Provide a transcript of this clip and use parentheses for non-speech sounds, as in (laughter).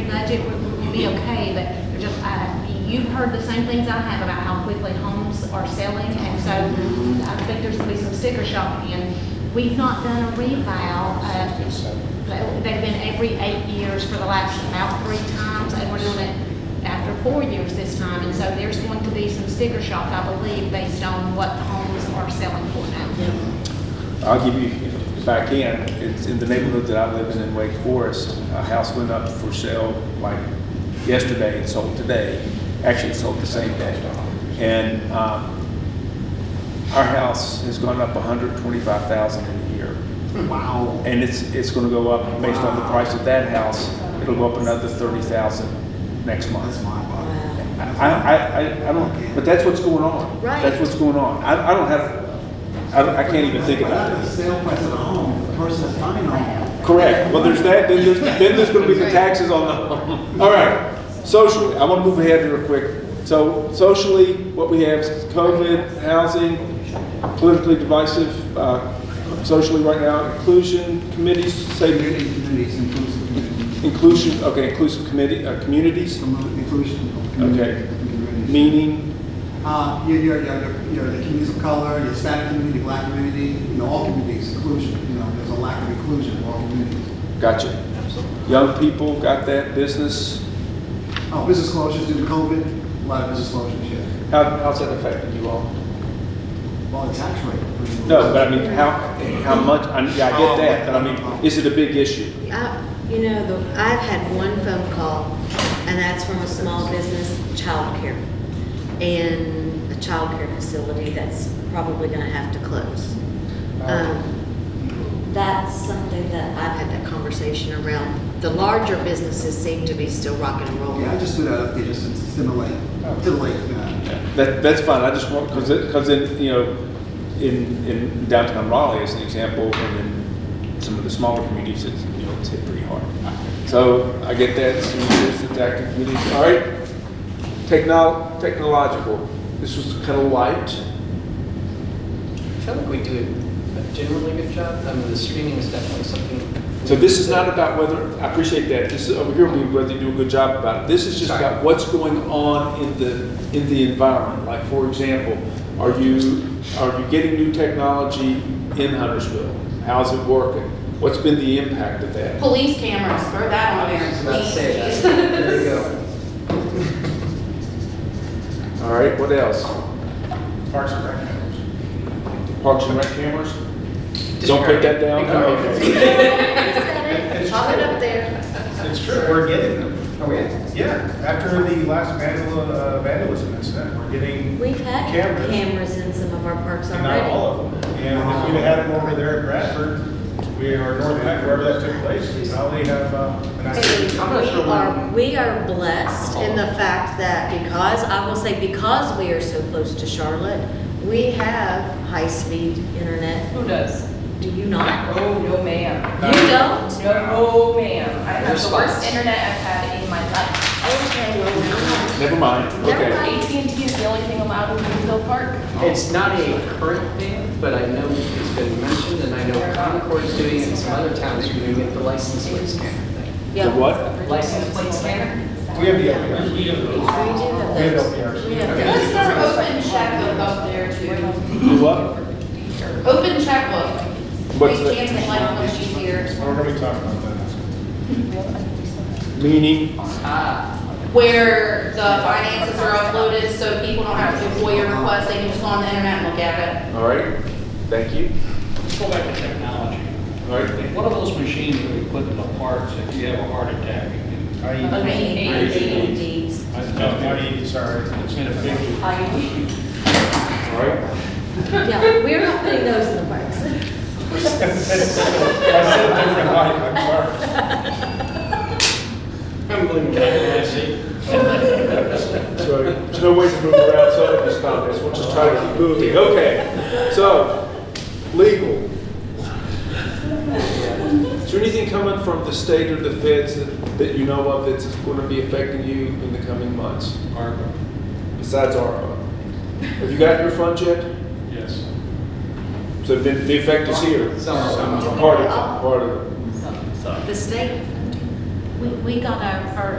budget will will be okay, but they're just, uh, you've heard the same things I have about how quickly homes are selling, and so I think there's gonna be some sticker shock again. We've not done a revow, uh, but they've been every eight years for the last about three times, and we're doing it after four years this time, and so there's going to be some sticker shock, I believe, based on what the homes are selling for now. I'll give you, if I can, it's in the neighborhood that I live in in Wake Forest. A house went up for sale like yesterday and sold today. Actually, it sold the same day. And um, our house has gone up 125,000 in a year. Wow. And it's, it's going to go up, based on the price of that house, it'll go up another 30,000 next month. That's my body. I, I, I- I don't, but that's what's going on. Right. That's what's going on. I, I don't have, I, don't- I can't even think about The it. sale price of the home versus buying a home. Correct. Well, there's that, then there's, then there's gonna be the taxes on the (laughs) home. All right, socially, I wanna move ahead here real quick. So socially, what we have is COVID, housing, politically divisive, uh, socially right now, inclusion committees, say, Community, communities, inclusive communities. inclusion, okay, inclusive committee, uh, communities, Promote inclusion of communities. Communities. meaning, Uh, your, your, your, your- your, the communities of color, the Hispanic community, black community, you know, all communities, inclusion, you know, there's a lack of inclusion in all communities. gotcha. Young people, got that, business, Oh, business closures due to COVID, a lot of business closures, yeah. How, how's that affecting you all? Well, the tax rate. pretty low. No, but I mean, how, how much, I, yeah, I get that, but I mean, is it a big issue? I- You know, the- I've had one phone call, and that's from a small business, childcare, and a childcare facility that's probably gonna have to close. Um, That's something that I've had that conversation around. The larger businesses seem to be still rocking and rolling. Yeah, I just threw that up there just to stimulate, stimulate, uh, That, that's fine, I just want, because it, because in, you know, in, in downtown Raleigh as an example, and in some of the smaller communities, it's, you know, it's hit pretty hard. So I get that, so it's an active community, all right? Technol, technological, this was kind of light. I feel like we do a generally good job. I mean, the screening is definitely something. So this is not about whether, I appreciate that, this is, over here, we- whether you do a good job about it. This is just about what's going on in the, in the environment. Like, for example, are you, are you getting new technology in Huntersville? How's it working? What's been the impact of that? Police cameras, throw that on I there. was about to say that. please. There you go. All right, what else? Parks and Rec members. Parks and Rec cameras? Don't put that down? Disregard it. Okay. Pop it up there. It's true, we're getting them. oh, yeah. Yeah, after the last vandal- uh, vandalism incident, we're getting We've had Cameras. cameras in some of our parks and already. not all of them. And if we'd had them over there in Bradford, we are north, wherever that took place, we probably have, uh, and I And said, I'm not we sure are, when- we are blessed in the fact that because, I will say, because we are so close to Charlotte, we have high-speed internet. Who does? Do you not? Oh, no ma'am. You don't? No ma'am. I have There's the worst spots. internet I've had in my life. Okay, well, Never mind, Never okay. mind. AT&T is the only thing allowed in Greenville Park. It's not a current thing, but I know it's been mentioned, and I know Concord's doing it, and some other towns are doing it, the license plate scanner thing. yeah. The what? License plate scanner? we have the open. We We do have have those. LPRs. We have those. Let's start open checkbook up there too. Do what? Open checkbook. What's We that? can't say like when she's here. We're gonna be talking about that. Meaning, Ah, Where the finances are uploaded, so people don't have to do FOIA requests, they can just go on the internet and look at all right, thank you. Let's go back to technology. All right, What are those machines that we put in the parks if you have a heart attack? You I, it. Okay. AEDs. can- no, I, sorry, It's in (laughs) a picture. all right. Yeah, we're not putting those in the parks. I said a different life, I'm sorry. Trembling candidacy. So there's no way to move around some of these comments, we'll just try to keep moving. Okay, so, legal. Is there anything coming from the state or the feds that, that you know of that's going to be affecting you in the coming months? ARPA, Besides ARPA? Have you gotten your funds yet? yes. So the, the effect is here? Some. Part of it, part of it. The state We, we got our, our